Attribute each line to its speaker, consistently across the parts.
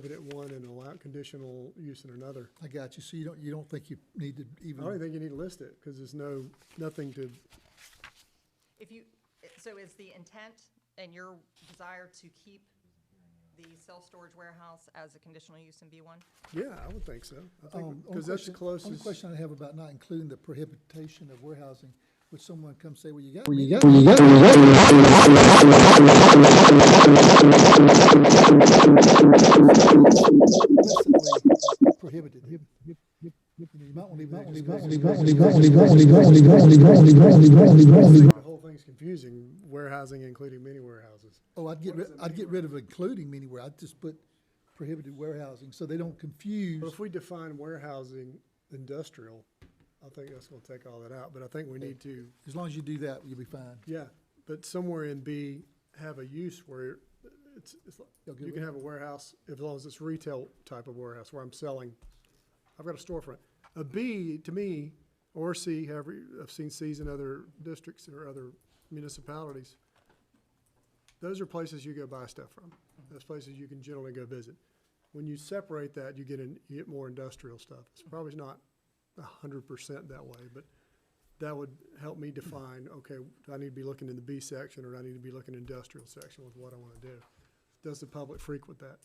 Speaker 1: prohibit it one and allow conditional use in another.
Speaker 2: I got you. So you don't, you don't think you need to
Speaker 1: I don't even
Speaker 2: even,
Speaker 1: think you need to list it, because there's no, nothing to,
Speaker 3: If you, so is the intent and your desire to keep the self-storage warehouse as a conditional use in B1?
Speaker 1: yeah, I would think so. I
Speaker 2: um,
Speaker 1: think,
Speaker 2: only
Speaker 1: because that's the
Speaker 2: question- only
Speaker 1: closest.
Speaker 2: question I have about not including the prohibition of warehousing, would someone come say, well, you got. me. Explicitly Prohibited. You know, you might want to leave that-
Speaker 1: The whole thing's confusing, warehousing including many warehouses.
Speaker 2: Oh, I'd get, rid- I'd get rid of including anywhere. I'd just put prohibited warehousing, so they don't confuse.
Speaker 1: But if we define warehousing industrial, I think that's gonna take all that out, but I think we need to,
Speaker 2: As long as you do that, you'll be fine.
Speaker 1: yeah, but somewhere in B, have a use where it's, it's, like-
Speaker 2: They'll
Speaker 1: you
Speaker 2: give
Speaker 1: can have a warehouse, as long as it's retail type of warehouse where I'm selling, I've got a storefront. A B, to me, or C, however, you- I've seen Cs in other districts or other municipalities, those are places you go buy stuff from. Those places you can generally go visit. When you separate that, you get in, you get more industrial stuff. It's probably not a hundred percent that way, but that would help me define, okay, do I need to be looking in the B section or do I need to be looking industrial section with what I wanna do? Does the public frequent that?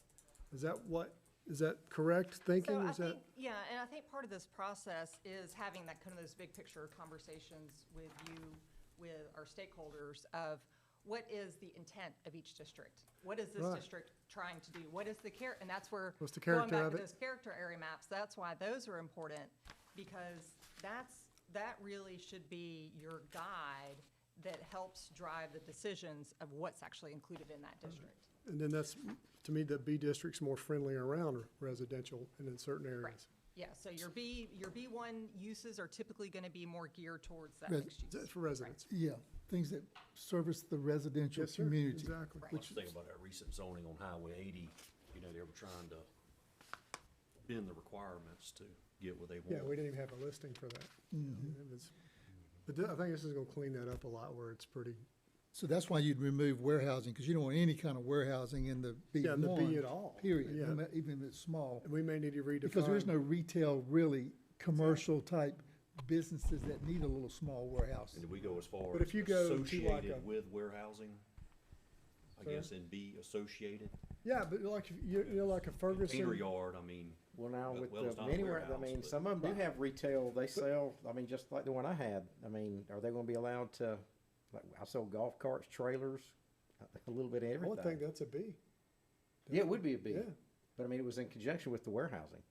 Speaker 1: Is that what, is that correct thinking?
Speaker 3: So I
Speaker 1: Is that?
Speaker 3: think, yeah, and I think part of this process is having that kind of those big picture conversations with you, with our stakeholders of what is the intent of each district? What is this
Speaker 1: Right.
Speaker 3: district trying to do? What is the care, and that's where.
Speaker 1: What's the character
Speaker 3: Going back
Speaker 1: of
Speaker 3: to
Speaker 1: it?
Speaker 3: those character area maps, that's why those are important, because that's, that really should be your guide that helps drive the decisions of what's actually included in
Speaker 1: Mm-hmm.
Speaker 3: that district.
Speaker 1: And then that's, to me, the B district's more friendly around residential and in certain areas.
Speaker 3: Yeah, so your B, your B1 uses are typically going to be more geared towards that
Speaker 2: Res-
Speaker 3: mixed use.
Speaker 1: That's for residents.
Speaker 2: Yeah, things that service the residential
Speaker 1: Yes, sir,
Speaker 2: community.
Speaker 1: exactly.
Speaker 3: Right.
Speaker 4: Let's think about that recent zoning on Highway eighty, you know, they were trying to bend the requirements to get what they
Speaker 1: Yeah, we
Speaker 4: want.
Speaker 1: didn't even have a listing for that.
Speaker 2: Mm-hmm.
Speaker 1: It was- But th- I think this is gonna clean that up a lot where it's pretty,
Speaker 2: So that's why you'd remove warehousing, because you don't want any kind of warehousing in the B
Speaker 1: yeah,
Speaker 2: one.
Speaker 1: and the B at all.
Speaker 2: Period,
Speaker 1: Yeah.
Speaker 2: no ma- even if it's small,
Speaker 1: And we may need to redefine.
Speaker 2: because there is no retail, really, commercial type businesses that need a little small warehouse.
Speaker 4: And did we go as far
Speaker 1: But
Speaker 4: as
Speaker 1: if you go to like a-
Speaker 4: associated with warehousing? I
Speaker 1: Sorry?
Speaker 4: guess it'd be associated,
Speaker 1: Yeah, but like, if you, you know, like a
Speaker 4: container
Speaker 1: Ferguson,
Speaker 4: yard, I mean,
Speaker 5: Well, now
Speaker 4: Well,
Speaker 5: with
Speaker 4: well, it's
Speaker 5: the
Speaker 4: not a
Speaker 5: many, ware- I
Speaker 4: warehouse,
Speaker 5: mean,
Speaker 4: but-
Speaker 5: some of them do have retail, they sell, I mean, just like the one I had, I mean, are they gonna be allowed to, like, I sold golf carts, trailers, a- a little bit of
Speaker 1: I would think
Speaker 5: everything.
Speaker 1: that's a B.
Speaker 5: Yeah, it would be a B,
Speaker 1: Yeah.
Speaker 5: but I mean, it was in conjunction with the warehousing.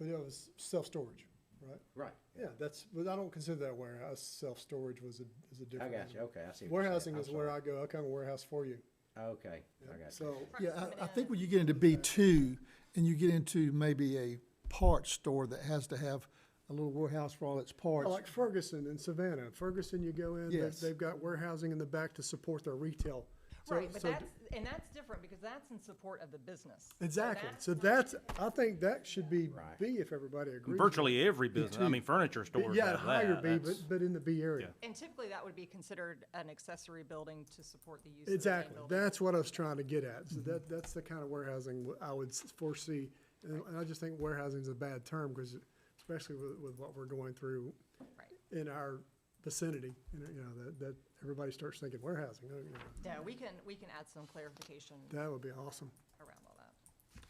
Speaker 1: But it was self-storage, right?
Speaker 5: Right.
Speaker 1: Yeah, that's, but I don't consider that warehouse, self-storage was a, is a
Speaker 5: I
Speaker 1: different.
Speaker 5: got you,
Speaker 1: animal.
Speaker 5: okay, I see. what you're saying.
Speaker 1: Warehousing
Speaker 5: I'm
Speaker 1: is where
Speaker 5: sorry.
Speaker 1: I go, I kind of warehouse for you.
Speaker 5: Okay, I got you.
Speaker 1: So,
Speaker 2: Yeah, I, I think when you get into B
Speaker 1: Okay.
Speaker 2: two, and you get into maybe a parts store that has to have a little warehouse for all its
Speaker 1: I
Speaker 2: parts.
Speaker 1: like Ferguson and Savannah, Ferguson, you go in, they've,
Speaker 2: Yes.
Speaker 1: they've got warehousing in the back to support their retail. So-
Speaker 3: Right, but
Speaker 1: so-
Speaker 3: that's, and that's different because that's in support of the business. So
Speaker 1: Exactly,
Speaker 3: that's
Speaker 1: so
Speaker 3: not-
Speaker 1: that's, I think that should be
Speaker 5: Right.
Speaker 1: B if everybody agrees.
Speaker 6: Virtually every business, I mean, furniture stores
Speaker 1: Yeah,
Speaker 6: have
Speaker 1: higher
Speaker 6: that.
Speaker 1: B, but,
Speaker 6: That's-
Speaker 1: but in the B area.
Speaker 6: Yeah.
Speaker 3: And typically that would be considered an accessory building to support the use of the main
Speaker 1: Exactly,
Speaker 3: building.
Speaker 1: that's what I was trying to get at,
Speaker 6: Mm-hmm.
Speaker 1: so that, that's the kind of warehousing w- I would s- foresee. And and I just think warehousing is a bad term, because especially with, with what we're going through
Speaker 3: Right.
Speaker 1: in our vicinity, you know, you know, that, that, everybody starts thinking warehousing, oh, you know,
Speaker 3: Yeah, we can, we can add some clarification
Speaker 1: that would be awesome.
Speaker 3: around all that.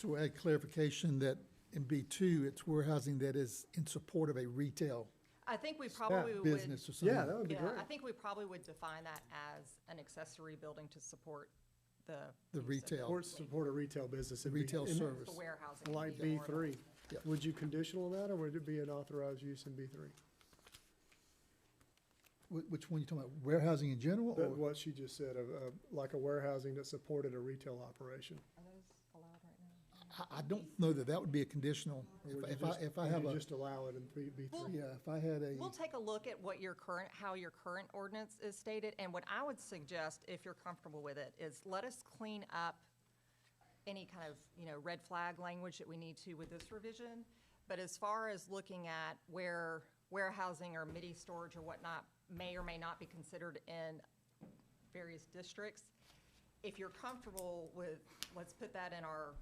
Speaker 2: To add clarification that in B two, it's warehousing that is in support of a retail
Speaker 3: I think we probably would.
Speaker 2: business or something.
Speaker 1: Yeah, that would be
Speaker 3: Yeah,
Speaker 1: great.
Speaker 3: I think we probably would define that as an accessory building to support the.
Speaker 2: The
Speaker 3: use of
Speaker 2: retail,
Speaker 1: Or support a retail business. it'd be-
Speaker 2: retail
Speaker 1: and
Speaker 2: service.
Speaker 3: The warehousing. would
Speaker 1: Like
Speaker 3: be
Speaker 1: B
Speaker 3: more of a-
Speaker 1: three,
Speaker 2: Yeah.
Speaker 1: would you conditional on that, or would it be an authorized use in B three?
Speaker 2: Wh- Which one you talking about, warehousing in general
Speaker 1: But
Speaker 2: or
Speaker 1: what she just said, of, of, like a warehousing that supported a retail operation.
Speaker 3: Are those allowed right now?
Speaker 2: I, I don't know that that would be a conditional.
Speaker 1: Or
Speaker 2: If
Speaker 1: would
Speaker 2: I-
Speaker 1: you
Speaker 2: If I,
Speaker 1: just-
Speaker 2: if I
Speaker 1: would
Speaker 2: have
Speaker 1: you
Speaker 2: a,
Speaker 1: Just allow it in B, B three.
Speaker 2: yeah, if I had a,
Speaker 3: We'll take a look at what your current, how your current ordinance is stated, and what I would suggest, if you're comfortable with it, is let us clean up any kind of, you know, red flag language that we need to with this revision. But as far as looking at where warehousing or midi storage or whatnot may or may not be considered in various districts, if you're comfortable with, let's put that in our